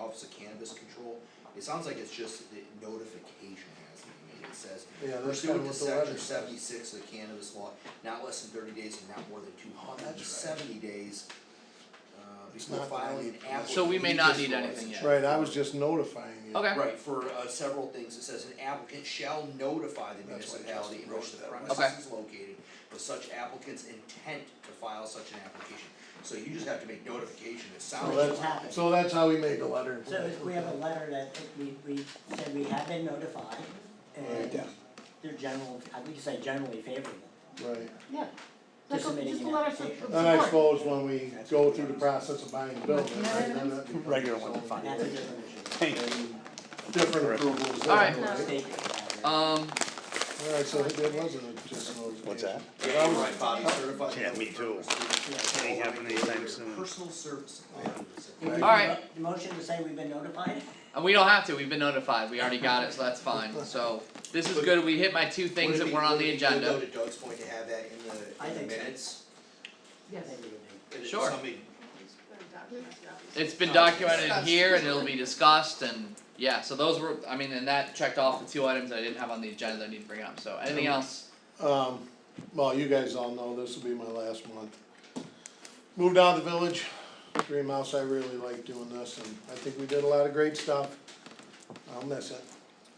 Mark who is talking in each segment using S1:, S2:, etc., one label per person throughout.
S1: Office of Cannabis Control, it sounds like it's just the notification has to be made, it says.
S2: Yeah, that's kinda
S1: Pursuant to
S2: what the
S1: section
S2: letter
S1: seventy-six of the cannabis law, not less than thirty days and not more than
S2: Oh,
S1: two hundred and seventy days. Uh, before
S2: not
S1: filing an
S2: ninety.
S1: application.
S3: So we may not need anything yet.
S2: Right, I was just notifying you.
S3: Okay.
S1: Right, for uh several things, it says an applicant shall notify the
S2: That's why
S1: municipality
S2: Justin
S1: in which
S2: wrote
S1: the
S2: that way.
S1: premises is located with such applicant's intent to file such an application. So you just have to make notification, it sounds.
S2: So
S1: like-
S2: that's, so that's how we made the letter.
S4: So if we have a letter that we, we said we have been notified, and
S2: Yeah.
S4: they're general, I would say generally favorable.
S2: Right,
S5: Yeah, like,
S4: uh, Just
S5: a-
S4: submitting
S5: just a
S4: an
S5: letter of
S4: application.
S5: support.
S2: and I suppose when we go through the process of buying the building,
S5: Yeah,
S2: right, then
S5: that's-
S2: that becomes
S6: Regular
S2: its
S6: one,
S2: own
S6: fine.
S4: And that's a different issue.
S6: Thank you.
S2: Different approvals,
S3: Alright.
S2: definitely.
S5: No.
S4: State required.
S3: Um,
S2: Alright, so it wasn't a just notification.
S6: What's that?
S1: Yeah, you're right, Bobby, certified.
S6: Yeah, me too.
S4: Yeah.
S6: Ain't happening anytime soon.
S1: Personal service.
S4: Do we do
S3: Alright.
S4: a mo- Motion to say we've been notified?
S3: and we don't have to, we've been notified, we already got it, so that's fine, so this is good, we hit my two things that were on the
S1: Would
S3: agenda.
S1: it be, would it be good though to Doug's point to have that
S4: I
S1: in the, in
S4: think
S1: the
S4: so.
S1: minutes?
S5: Yes.
S4: Maybe we do.
S1: And if
S3: Sure.
S1: somebody-
S3: It's been documented here and it'll be discussed and, yeah, so those were, I mean, and that checked off the two items I didn't have on the agenda that I need to bring up, so anything else?
S2: Um, well, you guys all know this will be my last month. Moved out of the village, Dream House, I really like doing this and I think we did a lot of great stuff. I'll miss it.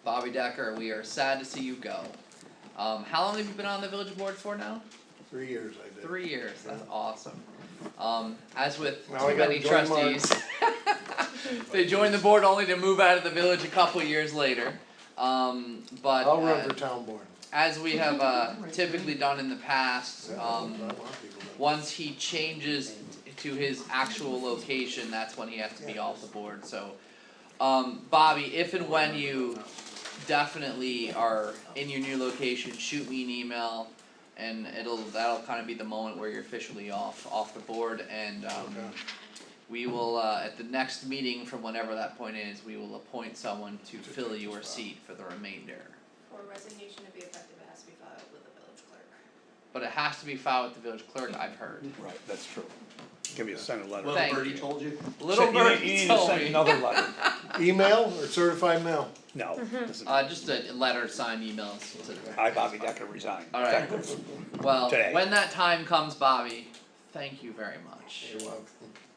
S3: Bobby Decker, we are sad to see you go. Um, how long have you been on the village board for now?
S2: Three years I did.
S3: Three years, that's awesome. Um, as with
S2: Now I
S3: too many
S2: gotta join Mark.
S3: trustees. They joined the board only to move out of the village a couple years later. Um, but
S2: I'll run for
S3: uh,
S2: town board.
S3: as we have uh typically done in the past, um,
S2: I want people to-
S3: once he changes to his actual location, that's when he has to be off the board, so. Um, Bobby, if and when you definitely are in your new location, shoot me an email. And it'll, that'll kinda be the moment where you're officially off, off the board and um.
S2: Okay.
S3: We will, uh, at the next meeting from whenever that point is, we will appoint someone
S2: To
S3: to fill
S2: take the
S3: your
S2: spot.
S3: seat for the remainder.
S7: For resignation to be effective, it has to be filed with the village clerk.
S3: But it has to be filed with the village clerk, I've heard.
S6: Right, that's true. Give me a sent a letter.
S1: Well,
S3: Thank
S1: Bertie
S3: you.
S1: told you.
S3: Little
S6: Send- you need-
S3: bird
S6: You need to
S3: told
S6: send
S3: me.
S6: another letter.
S2: Email or certified mail?
S6: No, doesn't-
S3: Uh, just a letter, sign, emails to
S6: I, Bobby Decker, resign.
S3: All right.
S6: Effective.
S3: Well,
S6: Today.
S3: when that time comes, Bobby, thank you very much.
S2: You're welcome.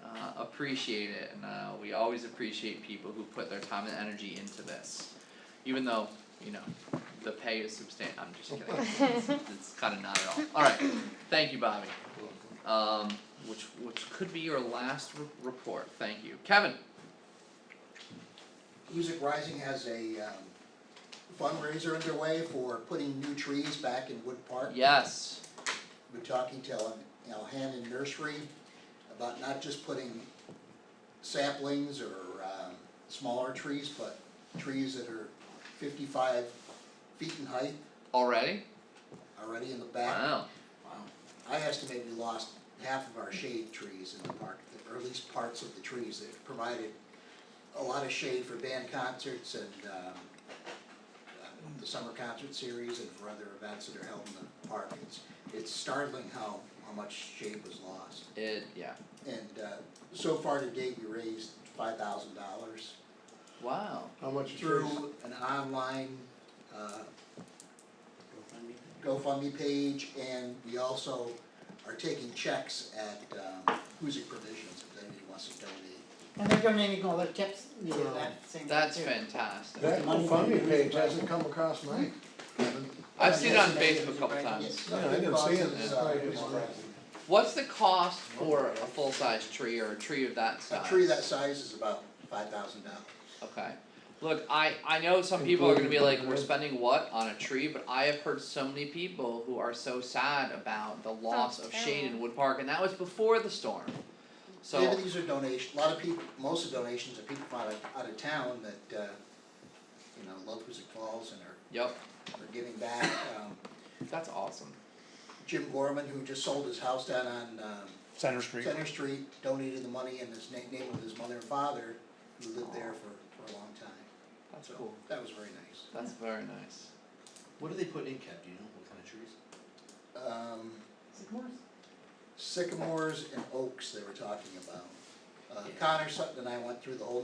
S3: Uh, appreciate it, and uh, we always appreciate people who put their time and energy into this. Even though, you know, the pay is substan- I'm just kidding. it's, it's kind of not at all. All right, thank you, Bobby. Um, which which could be your last r- report. Thank you, Kevin.
S8: Music Rising has a um, fundraiser underway for putting new trees back in Wood Park.
S3: Yes.
S8: We're talking to Al- Alhannon Nursery about not just putting saplings or um, smaller trees, but trees that are fifty-five feet in height
S3: Already?
S8: already in the back.
S3: Wow.
S8: I estimate we lost half of our shade trees in the park, or at least parts of the trees that provided a lot of shade for band concerts and, um, uh, the summer concert series and for other events that are held in the park. It's, it's startling how, how much shade was lost.
S3: It yeah.
S8: And, uh, so far to date, we raised five thousand dollars
S3: Wow.
S2: How much is yours?
S8: through an online, uh, GoFundMe page, and we also are taking checks at, um, Hoosic Provisions, if anybody wants to donate.
S4: And they're donating all their tips, you know, that same thing
S3: That's
S4: too.
S3: fantastic.
S2: That GoFundMe page hasn't come across mine.
S3: I've seen it on Facebook a couple times.
S8: Yes,
S2: Yeah, I didn't see it.
S8: it's, uh,
S2: Well,
S3: What's the cost for a full size tree or a tree of that size?
S8: A tree that size is about five thousand dollars.
S3: Okay. Look, I, I know some people are gonna be like, we're spending what on a tree, but I have heard so many people who are so sad about the loss of shade in Wood Park, and that was before the storm.
S8: Maybe
S3: So,
S8: these are donations, a lot of people, most of the donations are people from out of, out of town that, uh, you know, love Hoosic Falls and are,
S3: yep,
S8: are giving back. Um,
S3: that's awesome.
S8: Jim Gorman, who just sold his house down on, um,
S6: Center Street.
S8: Center Street, donated the money in his na- name of his mother and father, who lived there for, for a long time.
S3: That's
S8: So,
S3: cool.
S8: That was very nice.
S3: That's very nice.
S1: What are they putting in, Kev, do you know, what kind of trees?
S8: Um, sycamores and oaks they were talking about. Uh,
S1: Yeah.
S8: Connor Sutton and I went through the whole